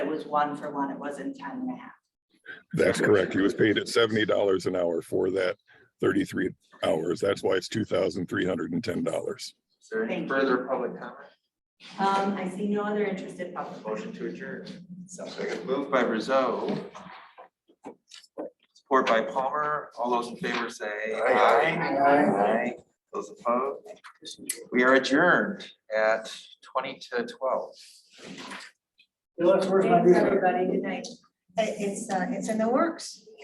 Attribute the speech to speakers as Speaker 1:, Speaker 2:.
Speaker 1: was one for one, it wasn't ten and a half.
Speaker 2: That's correct. He was paid at seventy dollars an hour for that thirty-three hours. That's why it's two thousand three hundred and ten dollars.
Speaker 3: Is there
Speaker 1: Thank
Speaker 3: any
Speaker 1: you.
Speaker 3: further public comment?
Speaker 1: Um, I see no other interested public.
Speaker 3: Motion to adjourn. Second, moved by Rizzo. Support by Palmer. All those in favor say aye. Aye. Those opposed? We are adjourned at twenty to twelve.
Speaker 4: Well, that's worth my
Speaker 1: Thanks,
Speaker 4: being here.
Speaker 1: everybody. Good night.
Speaker 5: It- It's, uh, it's in the works.